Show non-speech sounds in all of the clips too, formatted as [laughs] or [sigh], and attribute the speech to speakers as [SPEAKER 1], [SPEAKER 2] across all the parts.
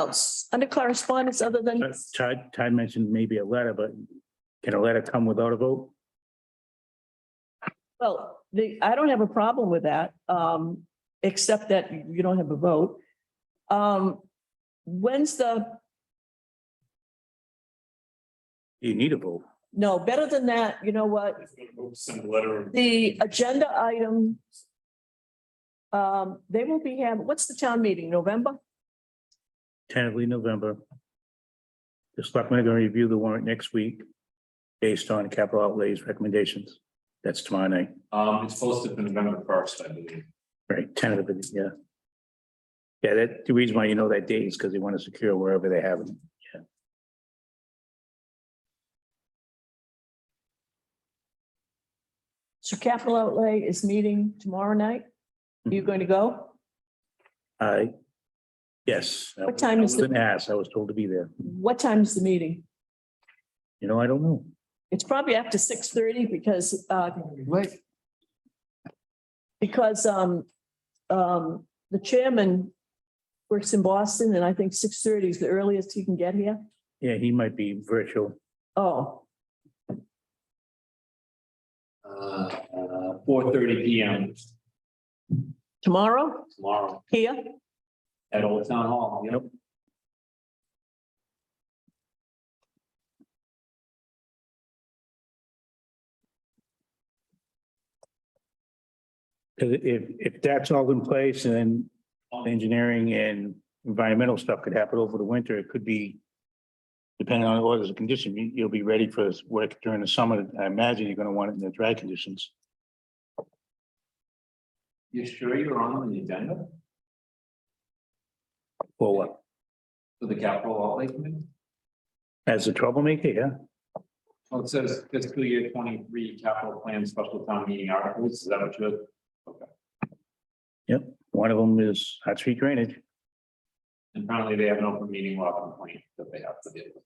[SPEAKER 1] else, under correspondence other than,
[SPEAKER 2] But Todd, Todd mentioned maybe a letter, but can a letter come without a vote?
[SPEAKER 1] well, the, I don't have a problem with that, um, except that you don't have a vote. Um, when's the,
[SPEAKER 2] You need a vote.
[SPEAKER 1] no, better than that, you know what?
[SPEAKER 2] Send a letter.
[SPEAKER 1] The agenda item. Um, they will be having, what's the town meeting, November?
[SPEAKER 2] Tentatively November. The selectmen are going to review the warrant next week based on capital outlays recommendations. That's tomorrow night,
[SPEAKER 3] Um, it's posted for November first, I believe.
[SPEAKER 2] right? Tentatively, yeah. Yeah, that, the reason why you know that date is because they want to secure wherever they have it.
[SPEAKER 1] So capital outlay is meeting tomorrow night. You going to go?
[SPEAKER 2] I, yes.
[SPEAKER 1] What time is
[SPEAKER 2] I
[SPEAKER 1] the-
[SPEAKER 2] wasn't asked. I was told to be there.
[SPEAKER 1] What time's the meeting?
[SPEAKER 2] You know, I don't know.
[SPEAKER 1] It's probably after six thirty because, uh,
[SPEAKER 4] Wait,
[SPEAKER 1] because, um, um, the chairman works in Boston and I think six thirty is the earliest he can get here.
[SPEAKER 2] Yeah, he might be virtual.
[SPEAKER 1] Oh,
[SPEAKER 3] Uh, four thirty P M
[SPEAKER 1] tomorrow
[SPEAKER 3] tomorrow
[SPEAKER 1] here?
[SPEAKER 3] at Old Town Hall. Yep.
[SPEAKER 2] Because if, if that's all in place and then engineering and environmental stuff could happen over the winter, it could be. Depending on the orders of condition, you, you'll be ready for this work during the summer. I imagine you're gonna want it in the dry conditions.
[SPEAKER 3] You sure you're on the agenda
[SPEAKER 2] Or what?
[SPEAKER 3] for the capital outlay committee?
[SPEAKER 2] As a troublemaker, yeah.
[SPEAKER 3] Well, it says fiscal year twenty-three capital plan special town meeting articles. Is that what you're?
[SPEAKER 2] One of them is hot street drainage.
[SPEAKER 3] And Apparently they have an open meeting law complaint that they have to deal with.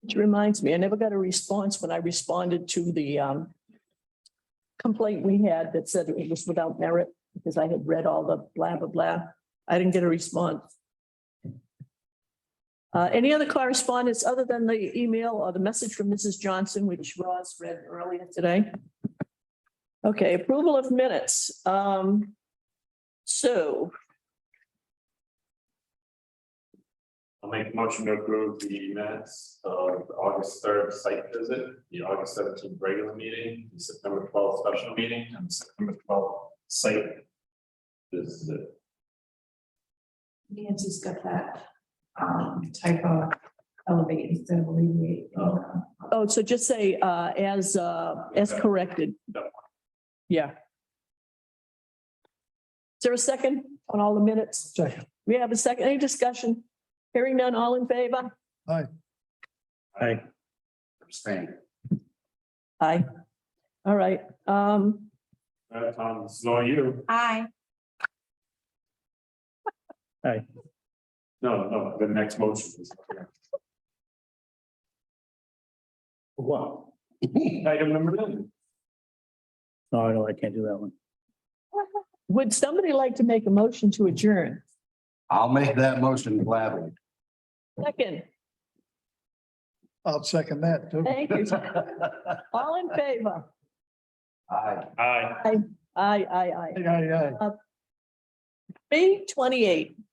[SPEAKER 1] Which reminds me, I never got a response when I responded to the um. Complaint we had that said it was without merit because I had read all the blah, blah, blah. I didn't get a response. Uh, any other correspondence other than the email or the message from Mrs. Johnson, which Ross read earlier today? Okay, approval of minutes. Um, so
[SPEAKER 5] I'll make a motion to approve the minutes of the August third site visit, the August seventeenth regular meeting, the September twelfth special meeting, and the September twelfth site. visit.
[SPEAKER 6] Nancy's got that um typo elevate instead of alleviate. in the-
[SPEAKER 1] Oh, so just say, uh, as, uh, as corrected.
[SPEAKER 5] That
[SPEAKER 1] Yeah. Is there a second on all the minutes?
[SPEAKER 4] Second.
[SPEAKER 1] We have a second, any discussion? Hearing none, all in favor?
[SPEAKER 2] I,
[SPEAKER 3] Abstain.
[SPEAKER 1] Aye. All right, um,
[SPEAKER 5] Uh, Tom, this is all you.
[SPEAKER 6] Aye.
[SPEAKER 5] No, no, the next motion is.
[SPEAKER 2] what?
[SPEAKER 5] Item number nine.
[SPEAKER 2] No, no, I can't do that one.
[SPEAKER 1] would somebody like to make a motion to adjourn?
[SPEAKER 7] I'll make that motion gladly.
[SPEAKER 1] Second,
[SPEAKER 4] I'll second that too.
[SPEAKER 7] [laughs]
[SPEAKER 1] thank you. All in favor?
[SPEAKER 7] Aye.
[SPEAKER 5] Aye.
[SPEAKER 1] Aye, Uh, aye, aye.
[SPEAKER 4] Aye, aye, aye.
[SPEAKER 1] B twenty-eight.